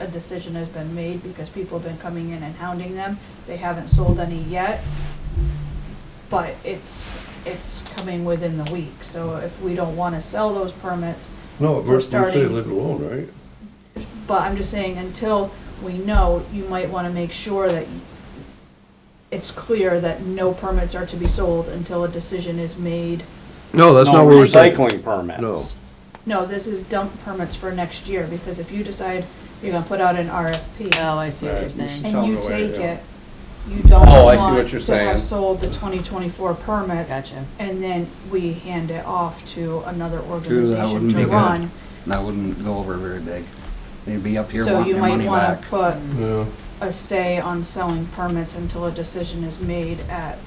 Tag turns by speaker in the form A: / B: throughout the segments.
A: a decision has been made because people have been coming in and hounding them. They haven't sold any yet. But it's, it's coming within the week, so if we don't wanna sell those permits,
B: No,
A: We're
B: we're, we say
A: starting-
B: leave it alone, right?
A: but I'm just saying, until we know, you might wanna make sure that it's clear that no permits are to be sold until a decision is made.
B: No, that's not what we're saying.
C: Recycling permits.
B: No.
A: No, this is dump permits for next year, because if you decide you're gonna put out an RFP
D: Oh, I see what you're
A: and
D: saying.
A: you
E: Tell them away,
A: take
E: yeah.
A: it, you don't
E: Oh, I see what
A: want
E: you're
A: to have
E: saying.
A: sold the twenty twenty-four permits.
D: Gotcha.
A: And then we hand it off to another
F: True, that
A: organization
F: wouldn't be
A: to
F: good.
A: run.
F: That wouldn't go over very big. They'd be up here
A: So
F: wanting
A: you
F: their
A: might
F: money
A: wanna
F: back.
A: put
B: Yeah.
A: a stay on selling permits until a decision is made at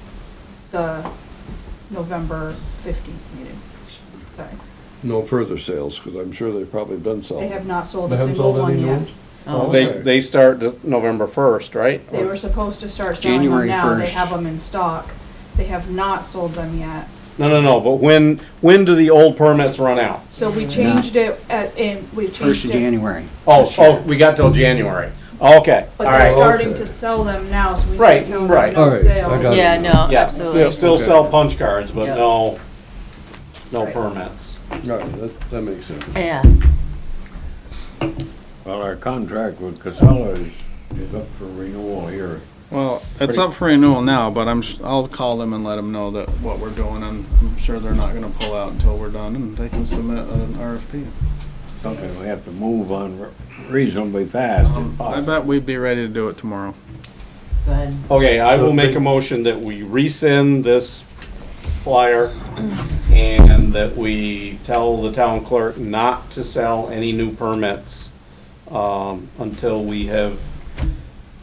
A: the November fifteenth meeting. Sorry,
B: No further sales, because I'm sure they've probably done
A: they have
B: some.
A: not sold
B: They
A: a
B: haven't
A: single
B: sold
A: one
B: any new
A: yet.
B: ones?
D: Oh,
C: They,
B: Okay.
C: they start the November first, right?
A: They were supposed to start selling them
F: January
A: now, they
F: 1st.
A: have them in stock. They have not sold them yet.
C: No, no, no, but when, when do the old permits run out?
A: So we changed it at, and we
F: First
A: changed
F: of
A: it.
F: January.
C: Oh, oh, we got till January. Okay, all
A: But they're
C: right.
A: starting
B: Okay.
A: to sell them now, so we
C: Right,
A: need to tell them
C: right.
B: All
A: no
B: right, I got
A: sales.
B: it.
D: Yeah, no,
C: Yeah, still
D: absolutely.
C: still
B: Okay.
C: sell punch cards, but
D: Yeah.
C: no, no
A: Right.
C: permits.
B: All right, that, that makes sense.
D: Yeah,
G: Well, our contract with Casella is, is up for renewal here.
E: Well, it's up for renewal now, but I'm, s- I'll call them and let them know that what we're doing, and I'm sure they're not gonna pull out until we're done, and they can submit an RFP.
G: Something we have to move on re- reasonably fast if
E: I
G: possible.
E: bet we'd be ready to do it tomorrow.
D: go ahead.
C: Okay, I will make a motion that we rescind this flyer and that we tell the town clerk not to sell any new permits um, until we have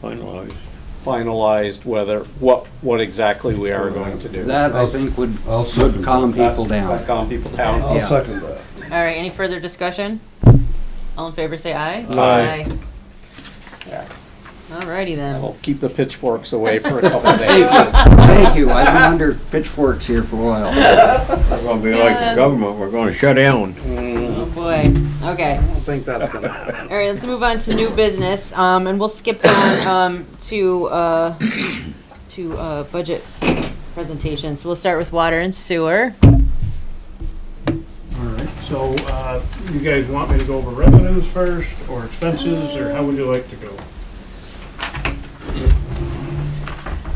G: Finalized.
C: finalized whether, what, what exactly we are going to do.
F: That, I think, would, would calm people down.
C: That Calm people down.
B: I'll
F: Yeah.
B: second that.
D: All right, any further discussion? All in favor, say aye.
C: Aye. Yeah. Oh,
D: All righty then.
C: I'll keep the pitchforks away for a couple of days.
F: Thank you, I've been under pitchforks here for a while.
G: We're gonna be like
D: Yeah.
G: the government, we're gonna shut down.
D: Oh, boy. Okay.
C: I don't think that's gonna happen.
D: All right, let's move on to new business, um, and we'll skip down, um, to, uh, to, uh, budget presentations. We'll start with water and sewer.
H: All right, so uh, you guys want me to go over revenues first, or expenses, or how would you like to go?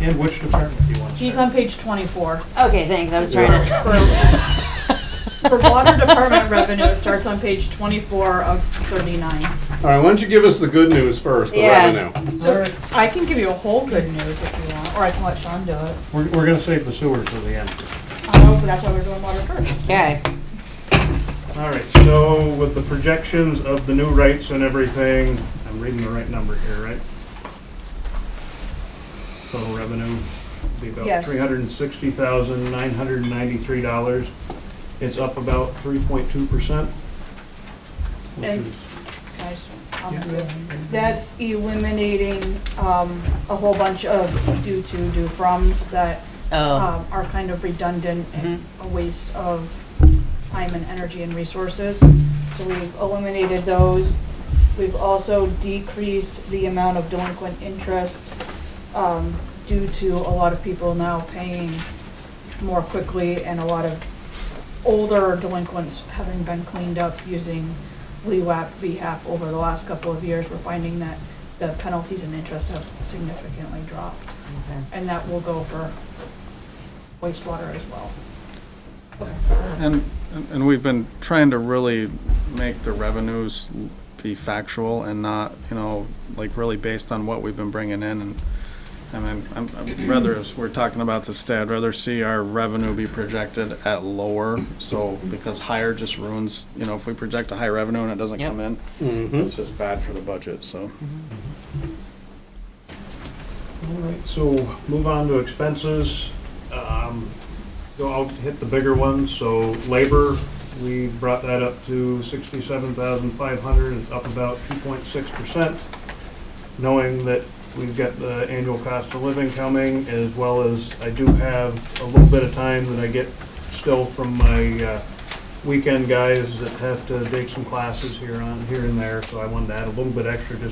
H: And which department do you want to
A: She's
H: start?
A: on page twenty-four.
D: Okay, thanks, I was trying to,
A: For- For water department revenue, it starts on page twenty-four of thirty-nine.
C: All right, why don't you give us the good news first, the
D: Yeah.
C: revenue?
A: So I can give you a whole good news if you want, or I can let Sean do it.
H: We're, we're gonna save the sewer till the end.
A: I hope that's why we're doing water first.
D: okay.
H: All right, so with the projections of the new rates and everything, I'm reading the right number here, right? Total revenue would be about
A: Yes.
H: three hundred and sixty thousand, nine hundred and ninety-three dollars. It's up about three point two percent. Which
A: And-
H: is
A: Guys, I'll do it. That's eliminating, um, a whole bunch of due to, due froms that
D: Oh,
A: um, are kind of redundant and a waste of time and energy and resources. So we've eliminated those. We've also decreased the amount of delinquent interest um, due to a lot of people now paying more quickly and a lot of older delinquents having been cleaned up using E LEWAP, VHAP over the last couple of years. We're finding that the penalties and interest have significantly dropped
D: okay.
A: and that will go for wastewater as well.
E: And, and we've been trying to really make the revenues be factual and not, you know, like really based on what we've been bringing in and, I mean, I'm, I'm rather, as we're talking about this today, I'd rather see our revenue be projected at lower, so, because higher just ruins, you know, if we project a high revenue and it doesn't
D: Yep.
E: come in,
C: Mhm.
E: it's just bad for the budget, so.
H: All right, so move on to expenses. Um, Go out, hit the bigger ones, so labor, we brought that up to sixty-seven thousand five hundred, it's up about two point six percent. Knowing that we've got the annual cost of living coming, as well as I do have a little bit of time that I get still from my uh, weekend guys that have to take some classes here on, here and there, so I wanted to add a little bit extra just